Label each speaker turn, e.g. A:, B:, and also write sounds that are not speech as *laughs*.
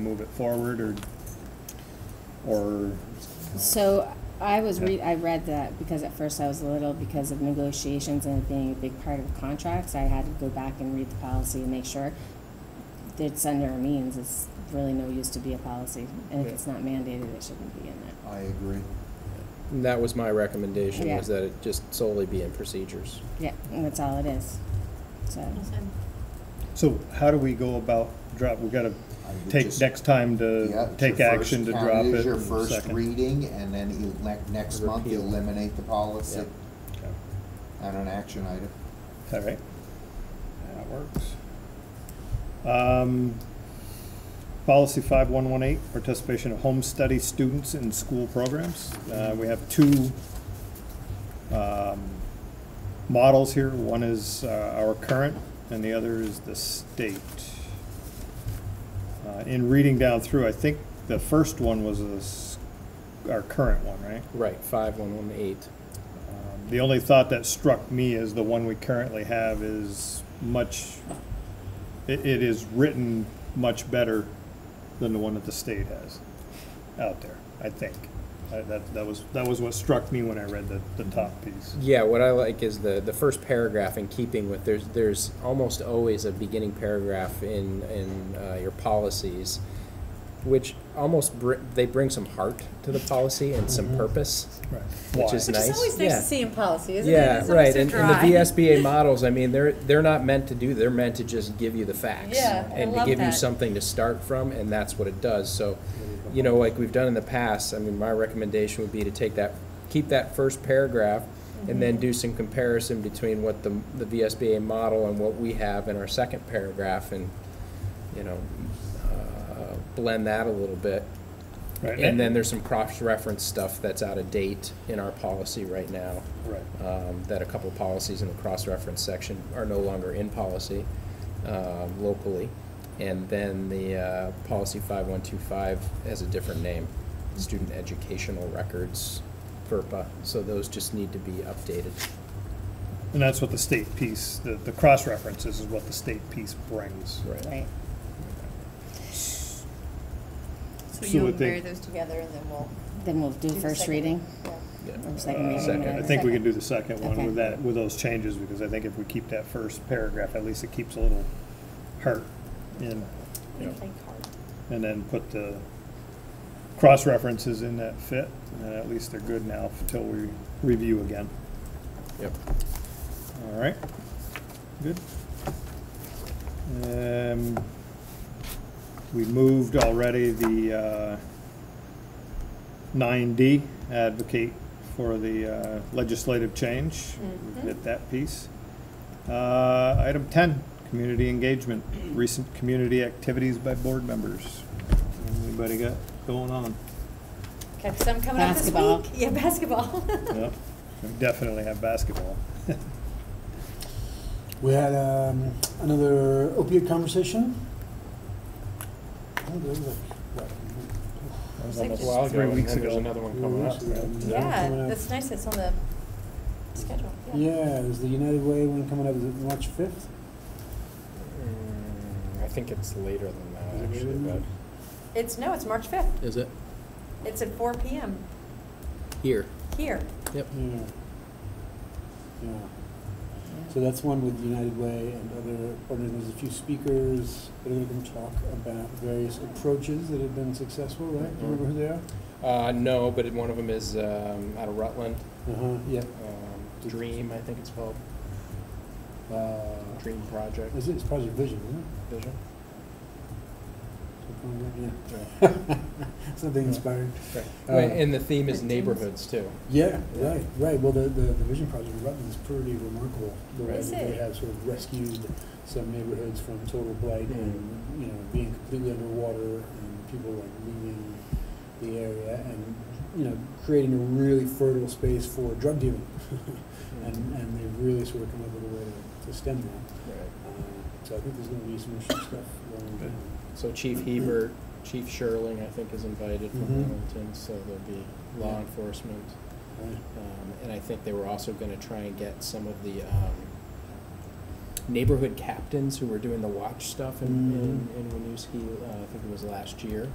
A: move it forward or, or,
B: So I was read, I read that because at first I was a little, because of negotiations and it being a big part of contracts, I had to go back and read the policy and make sure that it's under our means, it's really no use to be a policy, and if it's not mandated, it shouldn't be in there.
C: I agree.
D: And that was my recommendation, was
B: Yeah.
D: that it just solely be in procedures.
B: Yeah, and that's all it is, so.
A: so how do we go about drop, we gotta
C: I would
A: take
C: just-
A: next time
C: Yeah,
A: to
C: it's
A: take
C: your
A: action to
C: first-
A: drop it?
C: It is your
A: and
C: first
A: second.
C: reading, and then you, ne- next month you
D: Repeal.
C: eliminate the policy
D: Yep.
A: Okay.
C: on an action item.
A: All right. That works. Um, Policy 5118, participation of home study students in school programs. Uh, We have two um, models here. One is uh, our current, and the other is the state. Uh, In reading down through, I think the first one was a s- our current one, right?
D: Right, five one one eight.
A: Um, The only thought that struck me is the one we currently have is much, it, it is written much better than the one that the state has out there, I think. I- That, that was, that was what struck me when I read the, the top piece.
D: Yeah, what I like is the, the first paragraph in keeping with, there's, there's almost always a beginning paragraph in, in uh, your policies, which almost, br- they bring some heart to the policy and some purpose,
A: Right.
D: which is
A: Why?
D: nice.
E: It's always nice
D: Yeah.
E: to see in policy, isn't it?
D: Yeah,
E: It's always
D: right,
E: so
D: and, and the
E: dry.
D: VSBA *laughs* models, I mean, they're, they're not meant to do, they're meant to just give you the facts.
E: Yeah, I
D: And to
E: love
D: give you
E: that.
D: something to start from, and that's what it does, so, you know, like we've done in the past, I mean, my recommendation would be to take that, keep that first paragraph, and then
E: Mm-hmm.
D: do some comparison between what the, the VSBA model and what we have in our second paragraph, and, you know, uh, blend that a little bit.
A: Right,
D: And then there's some cross-reference stuff that's out of date in our policy right now
A: Right.
D: um, that a couple of policies in the cross-reference section are no longer in policy um, locally. And then the uh, policy 5125 has a different name, Student Educational Records, FERPA. So those just need to be updated.
A: And that's what the state piece, the, the cross-references is what the state piece brings.
B: Right.
E: So
A: So
E: you'll
A: what they-
E: marry those together and then we'll.
B: Then we'll do
E: the
B: first
E: second.
B: reading,
E: Yeah.
D: Yeah.
B: or second reading.
D: Uh, Second.
B: whatever.
A: I think we can do the second one
B: Okay.
A: with that, with those changes, because I think if we keep that first paragraph, at least it keeps a little heart in.
D: Yeah.
E: Think hard.
A: and then put the cross-references in that fit, and then at least they're good now until we review again.
D: Yep.
A: All right, good. Um, We moved already the uh, nine D, advocate for the uh, legislative change.
E: Mhm.
A: Get that piece. Uh, Item ten, community engagement, recent community activities by board members. Anybody got going on?
E: Got some coming up this week. *laughs*
B: Basketball.
E: Yeah, basketball.
A: Yep, we definitely have basketball. *laughs*
F: We had um, another opiate conversation. I think it was like, what,
A: That was
E: It's like
A: almost
E: just- A while
A: three weeks ago.
F: three weeks ago?
E: Yeah,
F: coming up.
E: that's nice, it's on the schedule, yeah.
F: Yeah, it was the United Way one coming up, is it March fifth?
D: Mm, I think it's later than
F: Is it actually, later than
E: It's, no, it's March fifth,
D: Is it?
E: it's at four P M
D: Here.
E: here.
D: Yep.
F: Yeah. Yeah. So that's one with United Way and other, and there's a few speakers that are going to talk about various approaches that have been successful, right? Do you remember who they are?
D: Uh, no, but it- one of them is um, out of Rutland,
F: Uh-huh, yeah.
D: um, Dream, I think it's called,
F: Uh,
D: Dream Project
F: Is it, it's Project Vision, isn't it?
D: Vision.
F: Yeah. *laughs* Something inspiring.
D: Right.
F: Uh,
D: Wait, And the theme is neighborhoods too.
F: Yeah, right, right. Well, the, the, the Vision Project in Rutland is pretty remarkable. The way
E: Is
F: that they
E: it?
F: have sort of rescued some neighborhoods from total blight and, you know, being completely underwater and people like leaving the area and, you know, creating a really fertile space for drug dealing. *laughs* And, and they've really sort of come up with a way to- to stem that.
D: Right.
F: Uh, So I think there's gonna be some interesting stuff going
A: Good.
F: down.
D: So Chief Hebert, Chief Sherling, I think, is invited from
F: Mhm.
D: Hamilton, so there'll be law
F: Yeah.
D: enforcement.
F: Right.
D: Um, And I think they were also gonna try and get some of the um, Mm-hmm. neighborhood captains who were doing the watch stuff in, in, in Winooski, uh, I think it was last year.